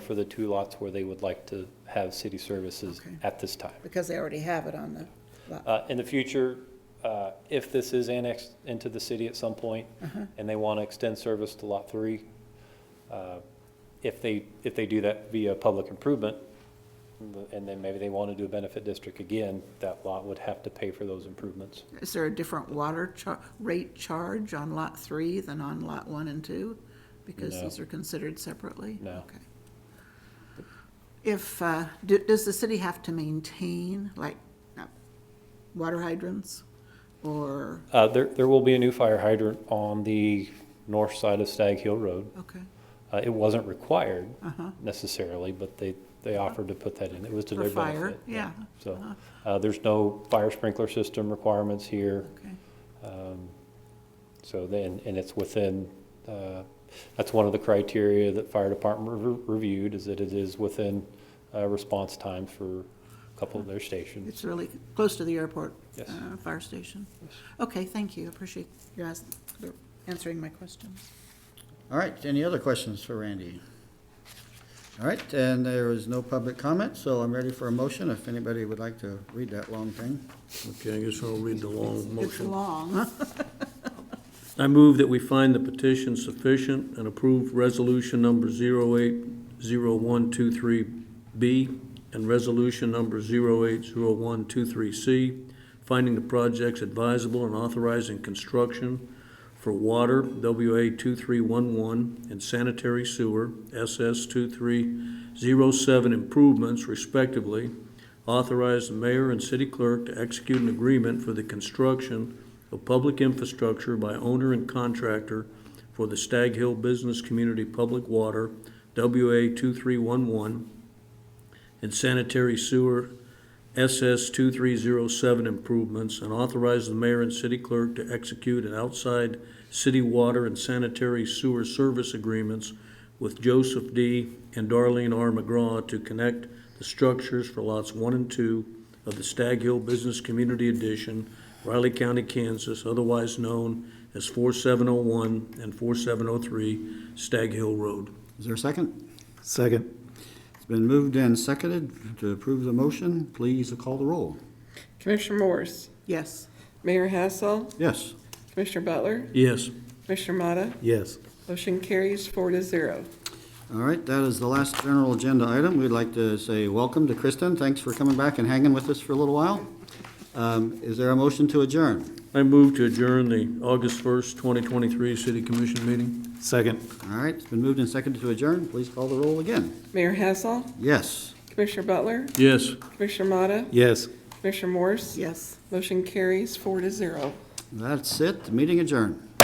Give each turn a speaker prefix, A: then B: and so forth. A: for the two lots where they would like to have city services
B: Okay.
A: at this time.
B: because they already have it on the lot.
A: Uh, In the future, uh, if this is annexed into the city at some point, and they want to extend service to Lot 3, uh, if they, if they do that via public improvement, and then maybe they want to do a benefit district again, that lot would have to pay for those improvements.
B: Is there a different water char, rate charge on lot three than on lot one and two? Because
A: No.
B: these are considered separately?
A: No.
B: Okay. If, uh, do, does the city have to maintain, like, uh, water hydrants? Or,
A: Uh, There, there will be a new fire hydrant on the north side of Stag Hill Road.
B: okay,
A: Uh, It wasn't required
B: uh-huh,
A: necessarily, but they, they offered to put that in. It was to
B: For
A: their
B: fire,
A: benefit.
B: yeah. Uh-huh.
A: So uh, there's no fire sprinkler system requirements here.
B: okay.
A: Um, So then, and it's within, uh, that's one of the criteria that fire department re- reviewed, is that it is within uh, response time for a couple
B: Uh-huh.
A: of their stations.
B: It's really close to the airport.
A: Yes.
B: uh, Fire station. Okay, thank you, appreciate you ask- answering my questions.
C: All right, any other questions for Randy? All right, and there is no public comment, so I'm ready for a motion if anybody would like to read that long thing.
D: Okay, I guess I'll read the long
B: It's
D: motion.
B: long.
D: I move that we find the petition sufficient and approve resolution number 080123B and resolution number 080123C, finding the projects advisable and authorizing construction for water, WA 2311, and sanitary sewer, SS 2307 improvements respectively, authorize the mayor and city clerk to execute an agreement for the construction of public infrastructure by owner and contractor for the Stag Hill Business Community Public Water, WA 2311, and sanitary sewer, SS 2307 improvements, and authorize the mayor and city clerk to execute an outside city water and sanitary sewer service agreements with Joseph D. and Darlene R. McGraw to connect the structures for lots one and two of the Stag Hill Business Community Edition, Riley County, Kansas, otherwise known as 4701 and 4703 Stag Hill Road.
C: Is there a second?
E: Second.
C: It's been moved and seconded to approve the motion. Please call the roll.
F: Commissioner Morse,
B: Yes,
F: Mayor Hassel,
C: Yes.
F: Commissioner Butler,
D: Yes.
F: Commissioner Motta,
E: Yes.
F: motion carries four to zero.
C: All right, that is the last general agenda item. We'd like to say welcome to Kristen. Thanks for coming back and hanging with us for a little while. Um, Is there a motion to adjourn?
D: I move to adjourn the August 1st, 2023 City Commission meeting.
E: Second.
C: All right, it's been moved and seconded to adjourn. Please call the roll again.
F: Mayor Hassel,
C: Yes.
F: Commissioner Butler,
D: Yes.
F: Commissioner Motta,
E: Yes.
F: Commissioner Morse,
B: yes.
F: motion carries four to zero.
C: That's it, The meeting adjourned.